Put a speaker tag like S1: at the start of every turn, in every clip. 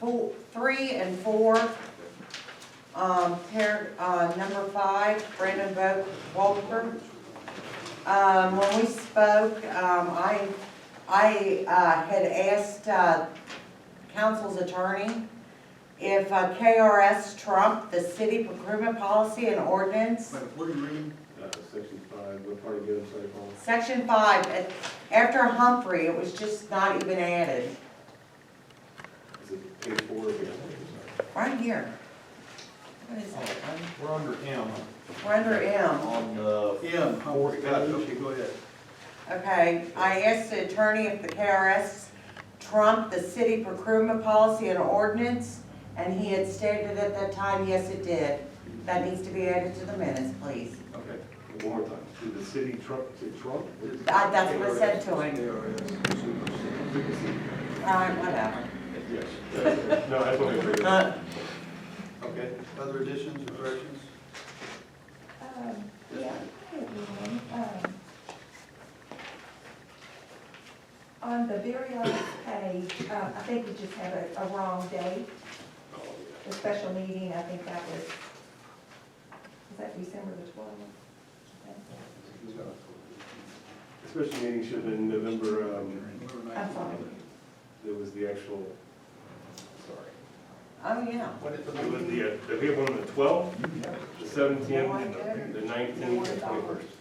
S1: four, three and four. Um, pair, uh, number five, Brandon Bo, Walter. Um, when we spoke, um, I, I, uh, had asked, uh, council's attorney if uh, KRS trumped the city procurement policy and ordinance.
S2: Wait, what are you reading?
S3: Uh, section five, what part of good safe harbor?
S1: Section five, at- after Humphrey, it was just not even added,
S3: Is it page four again?
S1: right here. What is that one?
S4: Oh, We're under M.
S1: We're under M,
S4: On, uh,
S2: Yeah,
S4: Fourth
S2: got it,
S4: page.
S2: okay, go ahead.
S1: okay. I asked the attorney if the KRS trumped the city procurement policy and ordinance, and he had stated at that time, yes, it did. That needs to be added to the minutes, please.
S2: Okay.
S3: One more time, did the city trump, did Trump?
S1: That- that's what I said to him.
S2: KRS, supersede.
S1: All right, whatever.
S3: Yes. No, that's what I figured.
S1: Uh,
S2: Okay, other additions or corrections?
S5: Um,
S2: Yes,
S5: yeah,
S2: ma'am.
S5: I have one. Um, On the very last page, uh, I think we just have a, a wrong date,
S3: Oh, yeah.
S5: the special meeting, I think that was, is that December the twelfth?
S3: The Special meeting should have been November, um,
S2: Number
S5: I'm sorry.
S2: 19.
S3: there was the actual, sorry.
S1: Oh, yeah.
S2: What is the
S3: It was
S2: meeting?
S3: the, uh, did we have one on the twelfth, the seventeenth, the nineteenth, and twenty-first?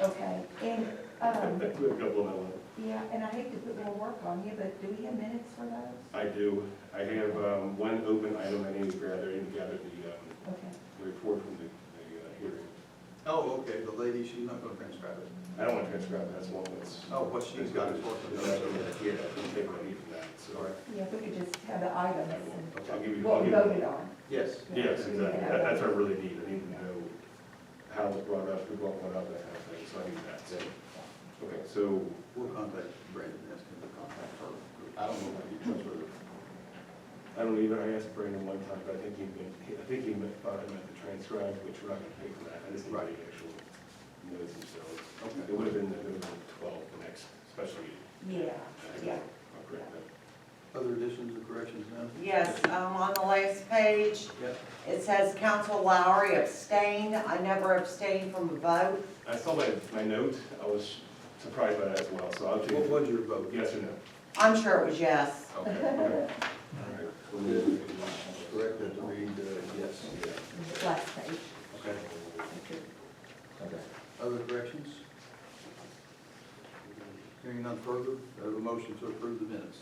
S5: Okay, and,
S3: I
S5: um,
S3: put a couple on that one.
S5: yeah, and I hate to put more work on you, but do we have minutes for those?
S3: I do, I have, um, one open item I need to gather, I need to gather the, um,
S5: Okay,
S3: report from the, the uh, hearing.
S2: Oh, okay, the lady, she's not gonna transcribe it.
S3: I don't want to transcribe, that's one that's.
S2: Oh, what she's got is what
S3: Yeah, I can take what I need from that,
S2: All
S3: so.
S2: right,
S5: yeah, if we could just have the items and
S3: I'll give you, I'll
S5: what we
S3: give you.
S5: voted on.
S2: yes.
S3: Yes, exactly, that, that's what I really need, I need to know how it was brought up, who brought one up, that kind of thing, so I need that, so. Okay, so,
S2: We'll contact Brandon, ask him to contact her.
S3: I don't know if you trust her. I don't either, I asked Brandon one time, but I think he meant, I think he meant, thought I meant the transcribe, which we're not gonna pay for that, I just need the
S2: Right.
S3: actual notes themselves.
S2: Okay.
S3: It would have been November twelfth, the next special meeting.
S5: Yeah, yeah.
S3: I'll correct that.
S2: Other additions or corrections now?
S1: Yes, um, on the last page,
S2: Yeah.
S1: it says Council Lowry abstained. I never abstained from a vote.
S3: I saw my, my note, I was surprised by that as well, so I'll change
S2: What
S3: it.
S2: was your vote?
S3: Yes or no?
S1: I'm sure it was yes.
S2: Okay.
S3: Correct.
S2: Correct, that to read, uh, yes.
S5: Last page.
S2: Okay. Other corrections? Hearing none further, I have a motion to approve the minutes.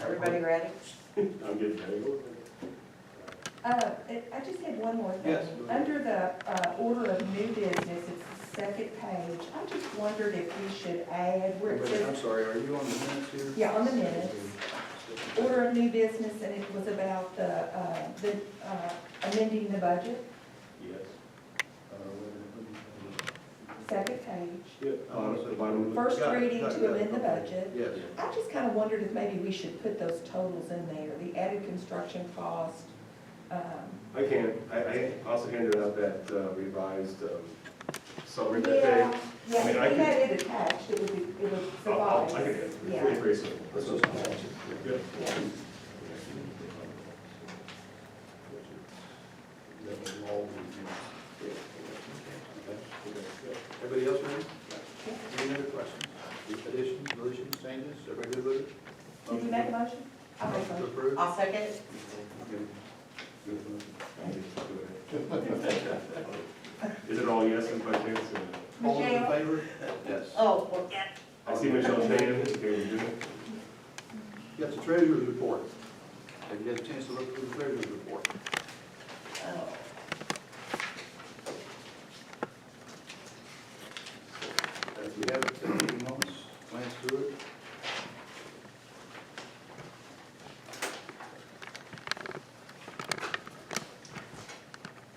S1: Everybody ready?
S3: I'm getting there.
S5: Uh, it- I just had one more thing.
S2: Yes, go ahead.
S5: Under the uh, order of new business, it's the second page. I just wondered if we should add where it
S2: Wait, I'm
S5: says,
S2: sorry, are you on the minutes here?
S5: yeah, on the minutes, order of new business, and it was about the, uh, the uh, amending the budget,
S3: Yes.
S2: Uh,
S5: second page.
S3: Yeah, bottom, the bottom of the.
S5: First
S2: Got it,
S5: reading
S2: got it,
S5: to
S2: got it,
S5: amend the
S2: okay.
S5: budget.
S2: Yes,
S5: I just kind of wondered if maybe we should put those totals in there, the added construction cost. um,
S3: I can, I, I also handed out that uh, revised um, summary that day.
S5: Yeah, yeah,
S3: I
S5: if
S3: mean, I
S5: we
S3: could-
S5: had it attached, it would, be- it would
S3: I'll- I'll-
S5: suffice.
S3: I can, do it. it's
S5: Yeah.
S3: pretty, pretty simple. That's what it's called. Good.
S5: Yeah.
S2: everybody else ready? Any other questions, additions, deletions, changes, everybody good with it?
S5: Did you make a motion? I'll make a
S2: Motion to
S5: motion.
S2: approve?
S1: I'll second it.
S3: Is it all yeses by chance? or-
S2: All those in
S5: Michelle?
S2: favor? Yes.
S1: Oh, well,
S3: I see Michelle's hand, okay, we're doing it.
S2: You got the treasurer's report. Have you had a chance to look through the treasurer's report?
S1: oh.
S2: If you haven't, take a few moments, glance through it.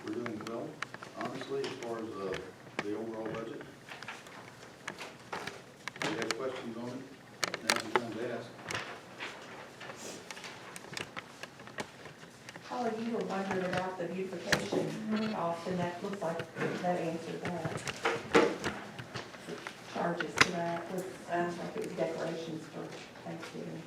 S2: We're doing well, honestly, as far as uh, the overall budget. If you have questions on it, now's the time to ask.
S5: Holly, you were wondering about the beautification cost, and that looks like that answered that. Charges to that was, uh, like it was decorations for Thanksgiving.